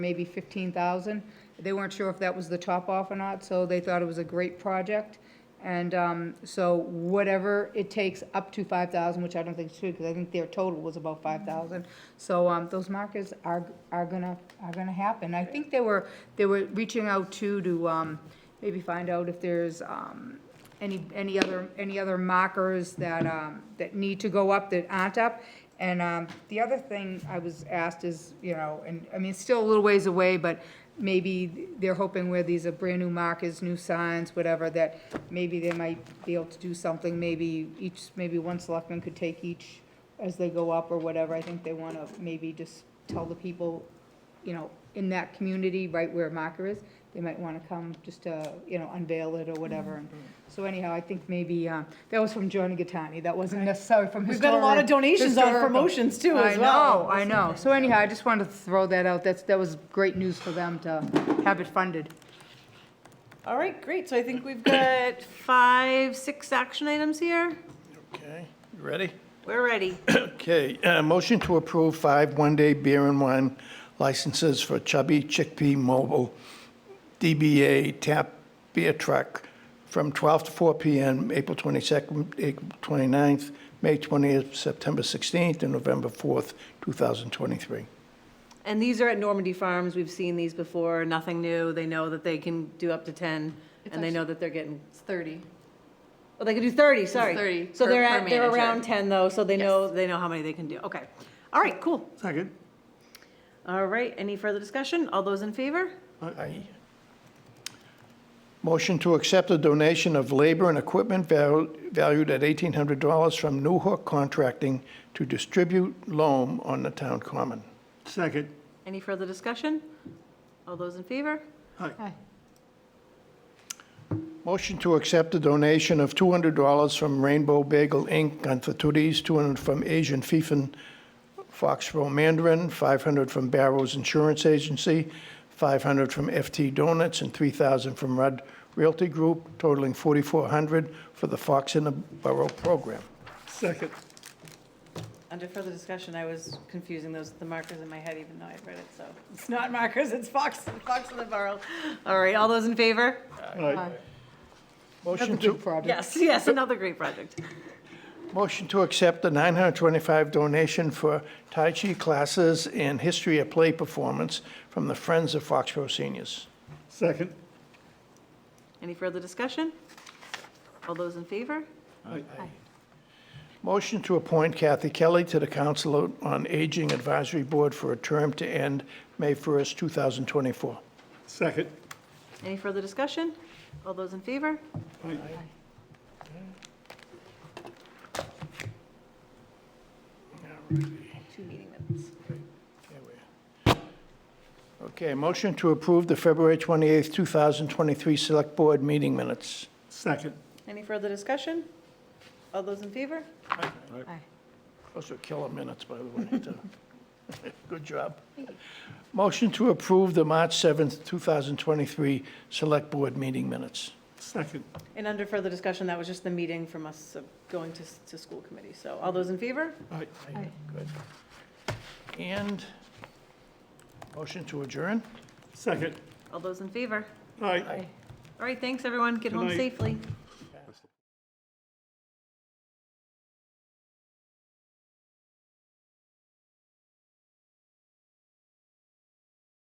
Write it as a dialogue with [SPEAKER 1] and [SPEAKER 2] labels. [SPEAKER 1] maybe 15,000. They weren't sure if that was the top off or not, so they thought it was a great project. And um, so whatever it takes, up to 5,000, which I don't think is true, because I think their total was about 5,000. So um, those markers are, are gonna, are gonna happen. I think they were, they were reaching out too to um, maybe find out if there's um, any, any other, any other markers that, um, that need to go up that aren't up. And, um, the other thing I was asked is, you know, and, I mean, it's still a little ways away, but maybe they're hoping where these are brand-new markers, new signs, whatever, that maybe they might be able to do something, maybe each, maybe one selectman could take each as they go up or whatever. I think they wanna maybe just tell the people you know, in that community, right where marker is, they might want to come just to, you know, unveil it or whatever.
[SPEAKER 2] Mm-hmm.
[SPEAKER 1] And So anyhow, I think maybe, uh, that was from Johnny Gattani, that wasn't necessarily from
[SPEAKER 2] We've
[SPEAKER 1] historic.
[SPEAKER 2] got a lot of donations on
[SPEAKER 1] historical.
[SPEAKER 2] promotions too as well.
[SPEAKER 1] I know, I know. So anyhow, I just wanted to throw that out, that's, that was great news for them to have it funded.
[SPEAKER 2] All right, great. So I think we've got five, six action items here.
[SPEAKER 3] Okay, you ready?
[SPEAKER 2] We're ready.
[SPEAKER 3] Okay, uh, motion to approve five one-day beer and wine licenses for Chubby Chickpea Mobile DBA Tap Beer Truck from 12 to 4 p.m., April 22nd, April 29th, May 20th, September 16th, and November 4th, 2023.
[SPEAKER 2] And these are at Normandy Farms. We've seen these before, nothing new. They know that they can do up to 10 and they know that they're getting,
[SPEAKER 4] It's 30.
[SPEAKER 2] well, they can do 30, sorry.
[SPEAKER 4] 30
[SPEAKER 2] So
[SPEAKER 4] per-
[SPEAKER 2] they're
[SPEAKER 4] per
[SPEAKER 2] at, they're
[SPEAKER 4] manager.
[SPEAKER 2] around 10 though, so they know, they know how many they can do. Okay. All right, cool.
[SPEAKER 3] Second.
[SPEAKER 2] All right, any further discussion? All those in favor?
[SPEAKER 3] Aye. Motion to accept a donation of labor and equipment val- valued at $1,800 from New Hook Contracting to distribute loam on the town common.
[SPEAKER 5] Second.
[SPEAKER 2] Any further discussion? All those in favor?
[SPEAKER 3] Motion to accept a donation of $200 from Rainbow Bagel Inc., Gunther Tooties, 200 from Asian Fiefin Foxborough Mandarin, 500 from Barrows Insurance Agency, 500 from FT Donuts, and 3,000 from Rudd Realty Group, totaling 4,400 for the Fox in the Borough program.
[SPEAKER 5] Second.
[SPEAKER 2] Under further discussion, I was confusing those, the markers in my head, even though I'd read it, so. It's not markers, it's Fox, Fox in the Borough. All right, all those in favor?
[SPEAKER 1] Aye.
[SPEAKER 3] Motion
[SPEAKER 1] Another
[SPEAKER 3] to,
[SPEAKER 1] big project.
[SPEAKER 2] Yes, yes, another great project.
[SPEAKER 3] motion to accept the 925 donation for Tai Chi classes and History of Play performance from the Friends of Foxborough Seniors.
[SPEAKER 5] Second.
[SPEAKER 2] Any further discussion? All those in favor?
[SPEAKER 3] Motion to appoint Kathy Kelly to the Council on Aging Advisory Board for a term to end May 1st, 2024.
[SPEAKER 5] Second.
[SPEAKER 2] Any further discussion? All those in favor? Two meeting minutes.
[SPEAKER 3] Okay, motion to approve the February 28th, 2023 Select Board meeting minutes.
[SPEAKER 5] Second.
[SPEAKER 2] Any further discussion? All those in favor?
[SPEAKER 3] Those are killer minutes, by the way. too. Good job. Motion to approve the March 7th, 2023 Select Board meeting minutes.
[SPEAKER 5] Second.
[SPEAKER 2] And under further discussion, that was just the meeting from us of going to, to school committee. So all those in favor?
[SPEAKER 3] Aye. Good. And motion to adjourn?
[SPEAKER 5] Second.
[SPEAKER 2] All those in favor?
[SPEAKER 5] Aye.
[SPEAKER 2] All right, thanks, everyone. Get home
[SPEAKER 5] Good night.
[SPEAKER 2] safely.